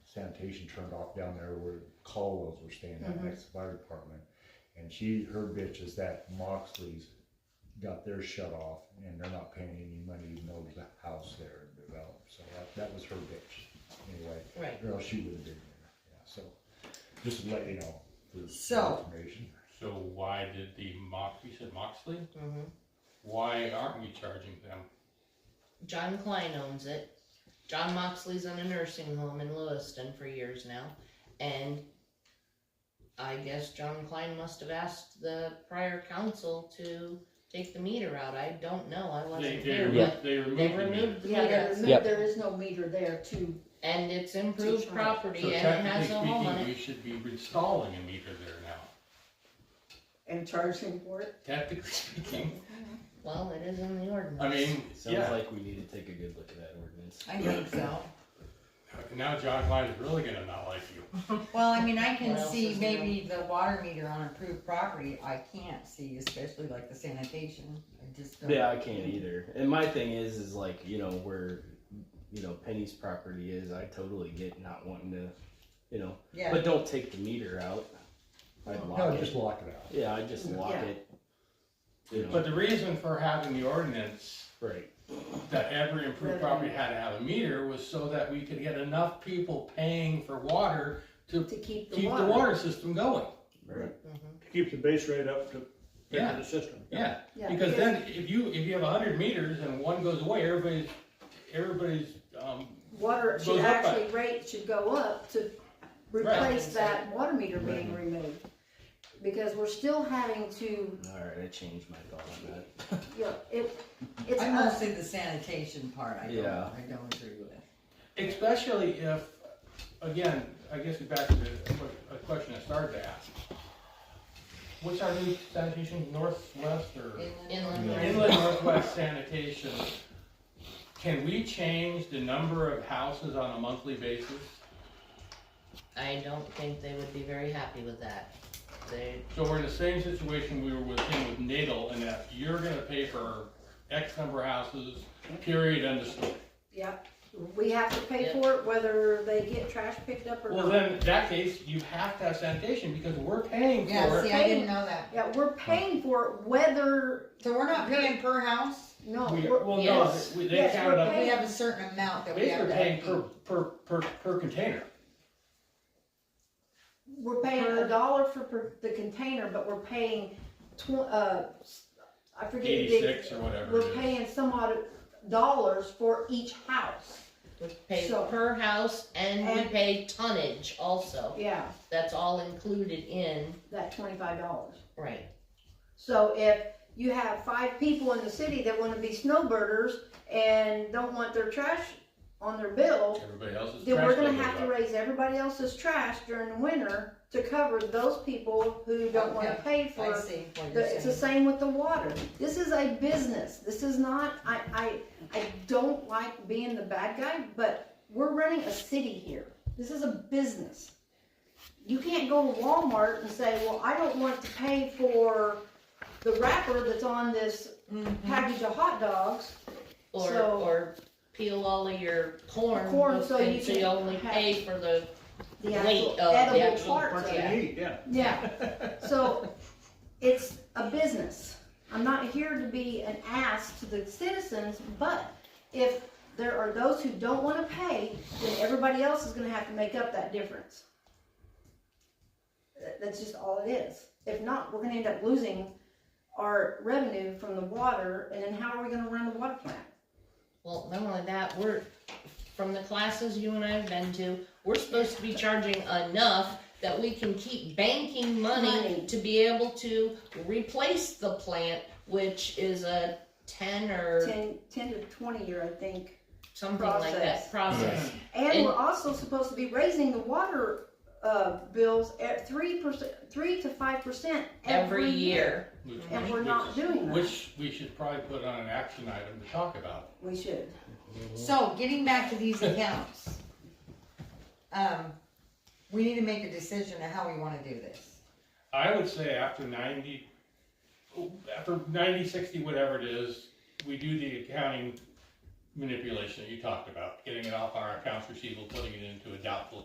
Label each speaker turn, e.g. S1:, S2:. S1: sanitation turned off down there where Caldwell's were staying at
S2: Mhm.
S1: next to the fire department. And she, her bitch is that Moxley's got theirs shut off and they're not paying any money even though there's a house there developed. So that, that was her bitch anyway.
S2: Right.
S1: Or else she would have been there. Yeah, so just to let you know. for
S2: So-
S1: Information.
S3: So why did the Mox, you said Moxley?
S2: Mhm.
S3: Why aren't we charging them?
S2: John Klein owns it. John Moxley's on a nursing home in Lewiston for years now, and I guess John Klein must have asked the prior council to take the meter out. I don't know. I
S3: They,
S2: wasn't
S3: they
S2: here,
S3: removed,
S2: but
S3: they
S2: they
S3: removed the meter.
S2: removed the
S4: Yeah, there
S2: meter,
S4: is, no-
S5: Yep.
S4: there is no meter there to,
S2: and it's improved
S4: Sure.
S3: So
S2: property, and it
S3: technically
S2: has a home on
S3: speaking, we
S2: it.
S3: should be installing a meter there now.
S4: and charge him for it.
S3: Technically speaking,
S2: Well, it is in the ordinance.
S3: I mean,
S5: Sounds
S3: yeah,
S5: like we need to take a good look at that ordinance.
S6: I think so.
S3: now John Klein is really gonna not like you.
S6: Well, I mean, I
S2: What
S6: can
S2: else
S6: see
S2: is new?
S6: maybe the water meter on approved property, I can't see, especially like the sanitation, I just don't.
S5: Yeah, I can't either. And my thing is, is like, you know, where, you know, Penny's property is, I totally get not wanting to, you know,
S6: Yeah,
S5: but don't take the meter out. I'd
S1: No,
S5: lock
S1: just
S5: it.
S1: lock it out.
S5: Yeah, I'd just lock
S4: Yeah.
S5: it. You know,
S3: But the reason for having the ordinance
S5: right.
S3: that every improved property had to have a meter was so that we could get enough people paying for water to
S4: To keep the
S3: keep
S4: water.
S3: the water system going.
S5: Right.
S2: Mhm.
S7: to keep the base rate up to,
S3: Yeah.
S7: to the system.
S3: Yeah,
S4: Yeah,
S3: because then if you, if you have a hundred meters and one goes away, everybody's, everybody's, um,
S4: Water should
S3: goes up by-
S4: actually rate should go up to replace that water meter being removed. Because we're still having to,
S5: All right, I changed my thought on that.
S4: you know, it, it's
S6: I
S4: us,
S6: mostly the sanitation part, I don't,
S5: Yeah.
S6: I don't agree with.
S3: especially if, again, I guess we're back to the, a question I started to ask. What's our new sanitation, northwest or?
S2: Inland
S1: Yeah.
S2: marine.
S3: Inland Northwest Sanitation, can we change the number of houses on a monthly basis?
S2: I don't think they would be very happy with that. They,
S3: So we're in the same situation we were with him with Nadel, and that you're gonna pay for X number of houses, period, end of story.
S4: yep, we have to pay for it whether they get trash picked up or
S3: Well,
S4: not.
S3: then, in that case, you have to have sanitation, because we're paying
S6: Yeah,
S3: for
S6: see,
S3: it.
S6: I didn't know that,
S4: Yeah, we're paying for it whether,
S6: so we're not paying per house,
S4: no,
S3: We,
S4: we're,
S3: well, no,
S2: yes.
S3: we- they
S4: Yes,
S3: count it
S4: we're
S3: up,
S6: we have a certain amount that we have
S3: basically
S6: to.
S3: paying per, per, per, per container.
S4: we're paying a dollar for per- the container, but we're paying tw- uh, I forget the big.
S3: Eighty-six or whatever
S4: We're
S3: it is.
S4: paying some odd dollars for each house,
S2: would pay
S4: So-
S2: per house and we
S4: And-
S2: pay tonnage also.
S4: yeah,
S2: That's all included in,
S4: that twenty-five dollars.
S2: right,
S4: So if you have five people in the city that wanna be snowbirders and don't want their trash on their bill,
S3: Everybody else's
S4: then
S3: trash
S4: we're gonna
S3: bill goes
S4: have to
S3: up.
S4: raise everybody else's trash during the winter to cover those people who don't wanna pay for
S6: I see what
S4: The-
S6: you're
S4: It's the
S6: saying.
S4: same with the water. This is a business. This is not, I, I, I don't like being the bad guy, but we're running a city here. This is a business. You can't go to Walmart and say, well, I don't want to pay for the wrapper that's on this
S6: Mhm.
S4: package of hot dogs.
S2: or,
S4: So-
S2: or peel all of your corn.
S4: Corn, so
S2: and
S4: you
S2: you
S4: can
S2: only
S4: have-
S2: pay for the,
S4: The
S2: Wait,
S4: actual
S2: oh, the
S4: edible
S2: actual
S4: parts of
S2: part,
S4: it.
S7: Neat, yeah.
S4: Yeah, so it's a business. I'm not here to be an ass to the citizens, but if there are those who don't wanna pay, then everybody else is gonna have to make up that difference. That- That's just all it is. If not, we're gonna end up losing our revenue from the water, and then how are we gonna run the water plant?
S2: well, not only that, we're, from the classes you and I have been to, we're supposed to be charging enough that we can keep banking money
S4: Money.
S2: to be able to replace the plant, which is a ten or
S4: Ten, ten to twenty year, I think.
S2: something like that, process.
S4: And
S2: And-
S4: we're also supposed to be raising the water, uh, bills at three percent, three to five percent
S2: every year.
S3: Which-
S4: And
S3: which-
S4: we're not
S3: which-
S4: doing that.
S3: Which we should probably put on an action item to talk about.
S4: We should.
S6: So, getting back to these accounts. Um, we need to make a decision of how we wanna do this.
S3: I would say after ninety, after ninety, sixty, whatever it is, we do the accounting manipulation that you talked about, getting it off our accounts receivable, putting it into a doubtful